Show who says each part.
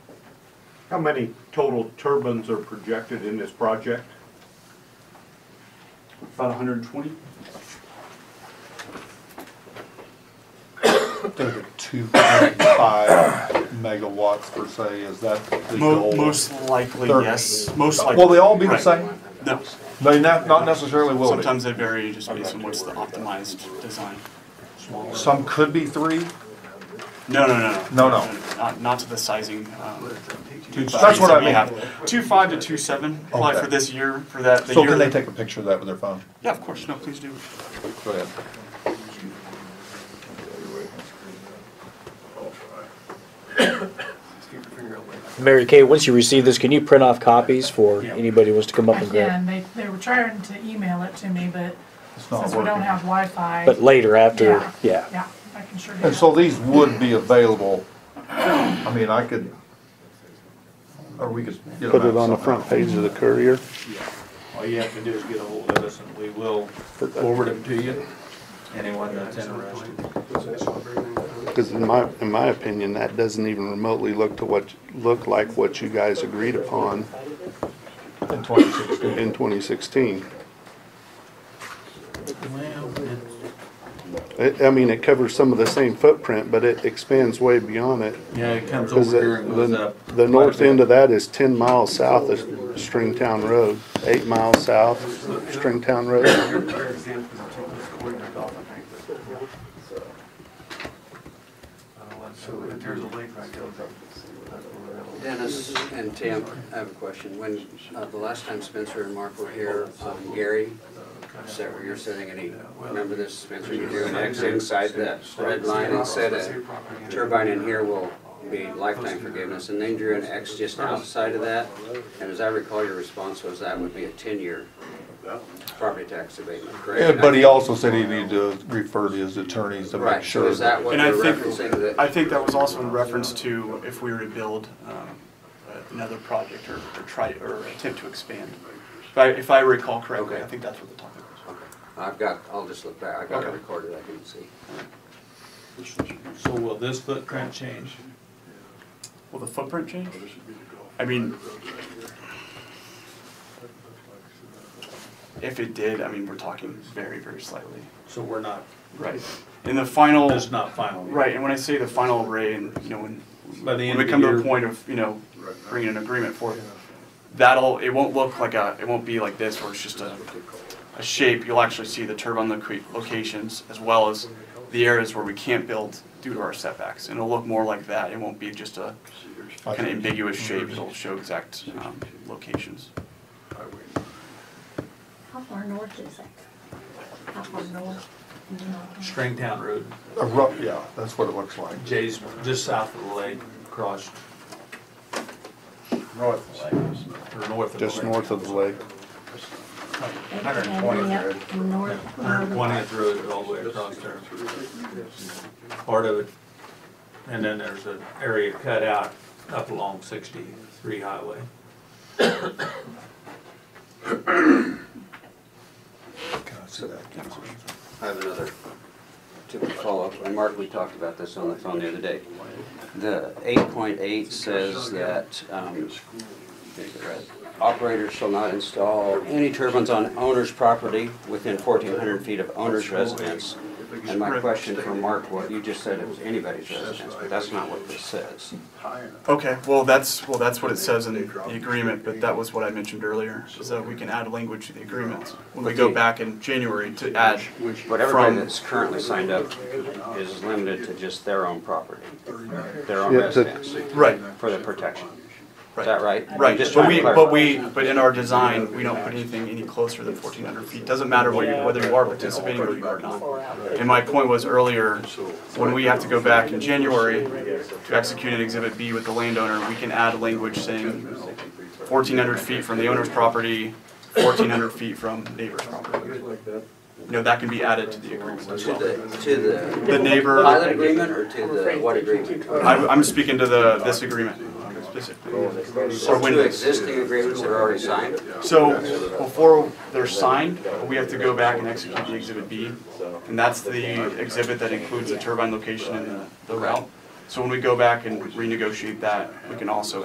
Speaker 1: How many total turbines are projected in this project?
Speaker 2: About 120?
Speaker 3: think of two point five megawatts per se, is that the
Speaker 2: Mo-
Speaker 3: goal?
Speaker 2: most likely,
Speaker 3: Thirty.
Speaker 2: yes. Most likely.
Speaker 3: Will they all be the
Speaker 2: Right.
Speaker 3: same?
Speaker 2: No.
Speaker 3: They not, not necessarily will be.
Speaker 2: Sometimes they vary just based on what's the optimized design.
Speaker 3: Some could be three,
Speaker 2: No, no, no, no.
Speaker 3: No, no.
Speaker 2: Not, not to the sizing. um, two
Speaker 3: That's
Speaker 2: fives
Speaker 3: what
Speaker 2: that
Speaker 3: I
Speaker 2: we
Speaker 3: mean.
Speaker 2: have. Two five to two seven, apply
Speaker 3: Okay.
Speaker 2: for this year, for that, the
Speaker 3: so
Speaker 2: year.
Speaker 3: can they
Speaker 2: that-
Speaker 3: take a picture of that with their phone?
Speaker 2: Yeah, of course, no, please do.
Speaker 3: Go ahead.
Speaker 4: Mary Kay, once you receive this, can you print off copies for anybody who wants to come up
Speaker 5: I
Speaker 4: and grab?
Speaker 5: can, they, they were trying to email it to me, but
Speaker 3: It's not
Speaker 5: since we don't
Speaker 3: working.
Speaker 5: have Wi-Fi,
Speaker 4: But later, after,
Speaker 5: Yeah.
Speaker 4: yeah.
Speaker 5: yeah, I can sure do
Speaker 3: And so
Speaker 5: that.
Speaker 3: these would be available, I mean, I could, or we could get them
Speaker 6: Put it
Speaker 3: out
Speaker 6: on the
Speaker 3: somehow.
Speaker 6: front page of the courier.
Speaker 7: All you have to do is get a hold of us and we will forward them to you, anyone that's interested.
Speaker 6: Because in my, in my opinion, that doesn't even remotely look to what, look like what you guys agreed upon
Speaker 3: In twenty sixteen.
Speaker 6: in 2016. I, I mean, it covers some of the same footprint, but it expands way beyond it.
Speaker 7: Yeah, it comes over
Speaker 6: Because
Speaker 7: here and goes
Speaker 6: the,
Speaker 7: up.
Speaker 6: the north end of that is 10 miles south of Stringtown Road, eight miles south, Stringtown Road.
Speaker 8: Dennis and Tim, I have a question. When, uh, the last time Spencer and Mark were here, um, Gary, sat where you're sitting and he, remember this, Spencer, you drew an X inside that red line and said a turbine in here will be lifetime forgiveness, and then drew an X just outside of that. And as I recall, your response was that would be a ten-year property tax abatement,
Speaker 3: Yeah,
Speaker 8: correct?
Speaker 3: But he also said he needed to refer to his attorneys to make
Speaker 8: Right, so
Speaker 3: sure.
Speaker 8: is that what
Speaker 2: And I
Speaker 8: you're
Speaker 2: think-
Speaker 8: referencing that?
Speaker 2: I think that was also in reference to if we were to build um, another project or or try, or attempt to expand. If I, if I recall correctly, I
Speaker 8: Okay.
Speaker 2: think that's what the topic was.
Speaker 8: Okay. I've got, I'll just look back, I've got it
Speaker 2: Okay.
Speaker 8: recorded, I can see.
Speaker 7: So will this footprint change?
Speaker 2: Will the footprint change? I mean, if it did, I mean, we're talking very, very slightly.
Speaker 7: So we're not,
Speaker 2: Right. In the final,
Speaker 7: it's not final.
Speaker 2: right, and when I say the final array and, you know, when,
Speaker 7: By the
Speaker 2: when
Speaker 7: end
Speaker 2: we
Speaker 7: of the
Speaker 2: come to a
Speaker 7: year,
Speaker 2: point of, you know, bringing an agreement for it, that'll, it won't look like a, it won't be like this where it's just a, a shape. You'll actually see the turbine loca- locations as well as the areas where we can't build due to our setbacks. And it'll look more like that. It won't be just a
Speaker 3: I
Speaker 2: kind of
Speaker 3: think-
Speaker 2: ambiguous shape. It'll show exact um, locations.
Speaker 9: How far north is it? How far north?
Speaker 7: Stringtown Road,
Speaker 3: A rough, yeah, that's what it looks like.
Speaker 7: Jay's just south of the lake, across. North of the lake. Or north of the lake.
Speaker 6: Just north of the lake.
Speaker 9: Hundred and twenty. North.
Speaker 7: Hundred twentieth road all the way across there. Part of it, and then there's an area cut out up along sixty-three highway.
Speaker 3: Can I see that?
Speaker 8: I have another to follow up, and Mark, we talked about this on the phone the other day. The eight point eight says that, um, is it right? operators shall not install any turbines on owner's property within fourteen hundred feet of owner's residence. And my question for Mark, what you just said, it was anybody's residence, but that's not what this says.
Speaker 2: Okay, well, that's, well, that's what it says in the agreement, but that was what I mentioned earlier, is that we can add language to the agreement when we go back in January to add.
Speaker 8: But everybody
Speaker 2: From-
Speaker 8: that's currently signed up is limited to just their own property, their own
Speaker 6: Yeah, but-
Speaker 8: residence,
Speaker 2: Right,
Speaker 8: for their protection. Is
Speaker 2: right,
Speaker 8: that right? I'm
Speaker 2: right,
Speaker 8: just
Speaker 2: but
Speaker 8: trying to
Speaker 2: we,
Speaker 8: clarify.
Speaker 2: but we, but in our design, we don't put anything any closer than fourteen hundred feet, doesn't matter what you- whether you are participating or you are not. And my point was earlier, when we have to go back in January to execute an exhibit B with the landowner, we can add language saying fourteen hundred feet from the owner's property, fourteen hundred feet from neighbor's property. You know, that can be added to the agreement as
Speaker 8: To
Speaker 2: well.
Speaker 8: the, to the
Speaker 2: The
Speaker 8: pilot
Speaker 2: neighbor,
Speaker 8: agreement or to the, what agreement?
Speaker 2: I'm, I'm speaking to the, this agreement specifically. Or
Speaker 8: So
Speaker 2: when
Speaker 8: two
Speaker 2: this-
Speaker 8: existing agreements that are already signed?
Speaker 2: So before they're signed, we have to go back and execute the exhibit B. And that's the exhibit that includes the turbine location and the, the route. So when we go back and renegotiate that, we can also